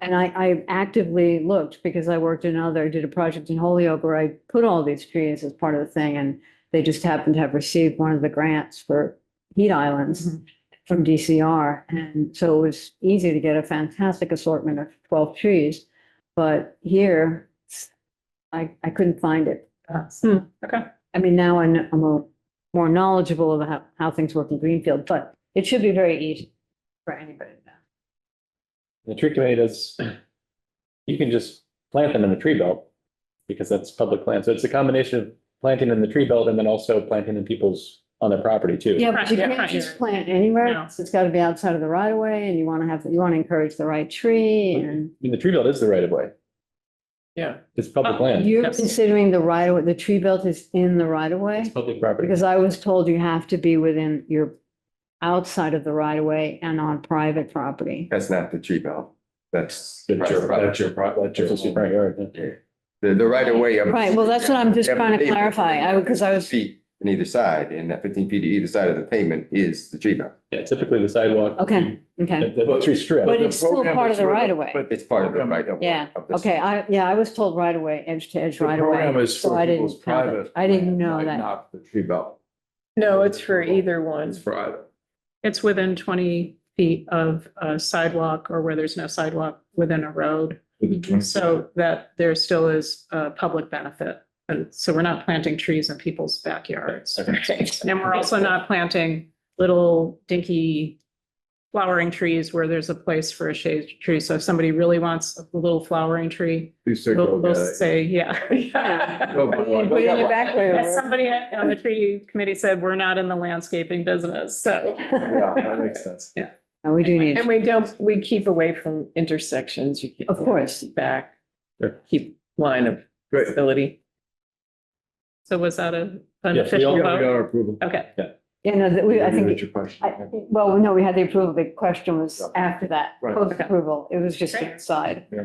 And I, I actively looked because I worked in other, did a project in Holyoke where I put all these trees as part of the thing and they just happened to have received one of the grants for heat islands from DCR. And so it was easy to get a fantastic assortment of twelve trees. But here, I, I couldn't find it. Hmm, Okay. I mean, now I kn- I'm a- more knowledgeable of how, how things work in Greenfield, but it should be very easy for anybody to know. The tree committee does, you can just plant them in the tree belt because that's public land. So it's a combination of planting in the tree belt and then also planting in people's, on their property too. Yeah, but you Front- yeah, can't front just yard. plant anywhere. No. else. It's gotta be outside of the right of way and you wanna have, you wanna encourage the right tree and I mean, the tree belt is the right of way. Yeah. It's public Uh, land. you're Yes. considering the right of, way. the tree belt is in the right of It's way? public property. Because I was told you have to be within your, outside of the right of way and on private property. That's not the tree belt. That's. That's your property. That's your property. It's just your front yard. yeah. The, the right of way. of- Right, well, that's what I'm just Yeah, trying to pavement. clarify. I, because I was, Feet on either side, and that fifteen feet to either side of the pavement is the tree belt. Yeah, typically the sidewalk. okay, okay. The, the tree strip. But it's still program part of is the sort of- right of way. but It's part of the right of way. Yeah, of the- Okay, I, yeah, I was told right away, edge to edge The right away. program is so for I didn't people's have it. private I didn't land, know Right, that. Not the tree belt. No, it's for either one. It's private. It's within twenty feet of a sidewalk or where there's no sidewalk within a road. Hmm. So that there still is a public benefit. And so we're not planting trees in people's backyards. Okay. And we're also not planting little dinky flowering trees where there's a place for a shade tree. So if somebody really wants a little flowering tree, Please take they'll, over they'll that. say, yeah. Go by one. Put it in your back room. As somebody on the tree committee said, we're not in the landscaping business, so. Yeah, that makes sense. No, we do need, And we don't, we keep away from intersections. You keep of course. back, Sure. keep line of Great. Yeah, ability. So was that a we an all- official we got vote? our approval. Okay, You know, that we, I Maybe think, that's your question. I- well, no, we had the approval. The question was after that, Right. post approval. It was just Great. inside. Yeah.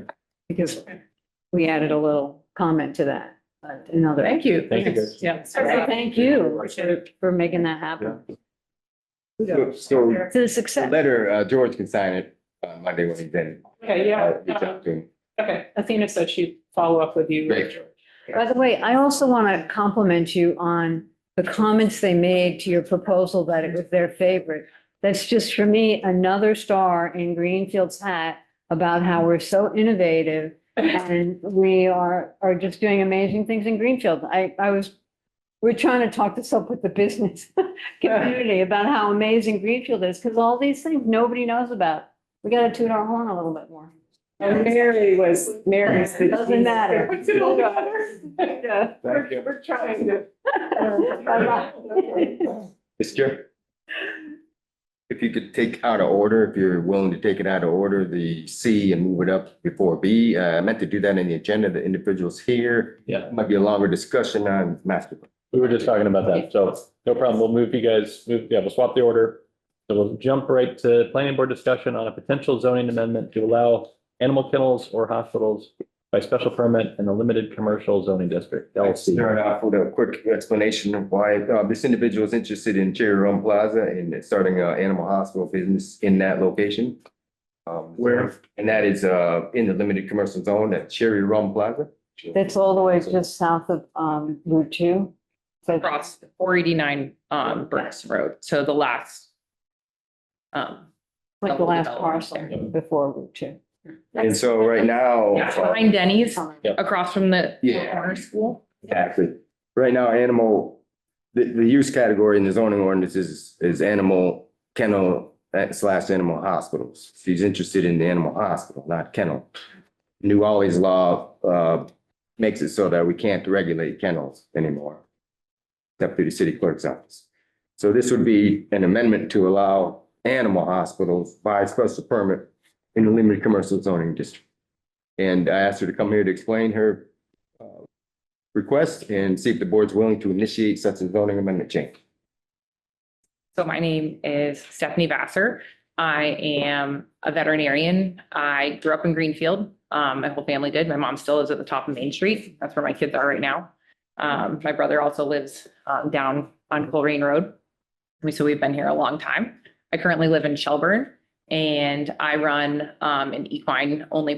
Because we added a little comment to that, but another. thank you. Thank you, guys. Yeah. So Thank you for- for making that happen. So- So To the the success. letter, uh, George can sign it uh, Monday when he's in. Okay, Uh, yeah. reach out to him. Okay, Athena said she'd follow up with you. Great. By the way, I also want to compliment you on the comments they made to your proposal that it was their favorite. That's just for me, another star in Greenfield's hat about how we're so innovative and we are, are just doing amazing things in Greenfield. I, I was, we're trying to talk this up with the business community about how amazing Greenfield is, because all these things nobody knows about. We got to toot our horn a little bit more. And Mary was, Mary's. the- Doesn't matter. Yeah. Thank you. We're trying to. Mr. If you could take out of order, if you're willing to take it out of order, the C and move it up before B. Uh, I meant to do that in the agenda, the individuals here. Yeah. Might be a longer discussion on master. plan. We were just talking about that, so no problem. We'll move you guys, move, yeah, we'll swap the order. So we'll jump right to planning board discussion on a potential zoning amendment to allow animal kennels or hospitals by special permit in a limited commercial zoning district, LC. Start off with a quick explanation of why uh, this individual is interested in Cherry Run Plaza and starting an animal hospital business in that location. Um, Where? And that is uh, in the limited commercial zone at Cherry Run Plaza. That's all the way just south of um Route Two. So- Across four eighty-nine, um, Burns Road, so the last. Um, Like the last parcel Yep. before Route Two. And so right now. yeah, uh, behind Denny's, Sorry. Yep. across from the Yeah. corner school. Exactly. Right now, animal, the, the use category in the zoning ordinance is, is animal kennel eh, slash animal hospitals. She's interested in the animal hospital, not kennel. New Orleans law, uh, makes it so that we can't regulate kennels anymore. Except through the city clerk's office. So this would be an amendment to allow animal hospitals by special permit in the limited commercial zoning district. And I asked her to come here to explain her request and see if the board's willing to initiate such a zoning amendment change. So my name is Stephanie Vassar. I am a veterinarian. I grew up in Greenfield. Um, my whole family did. My mom still lives at the top of Main Street. That's where my kids are right now. Um, my brother also lives, um, down on Colerain Road. We, so we've been here a long time. I currently live in Shelburne and I run, um, an equine only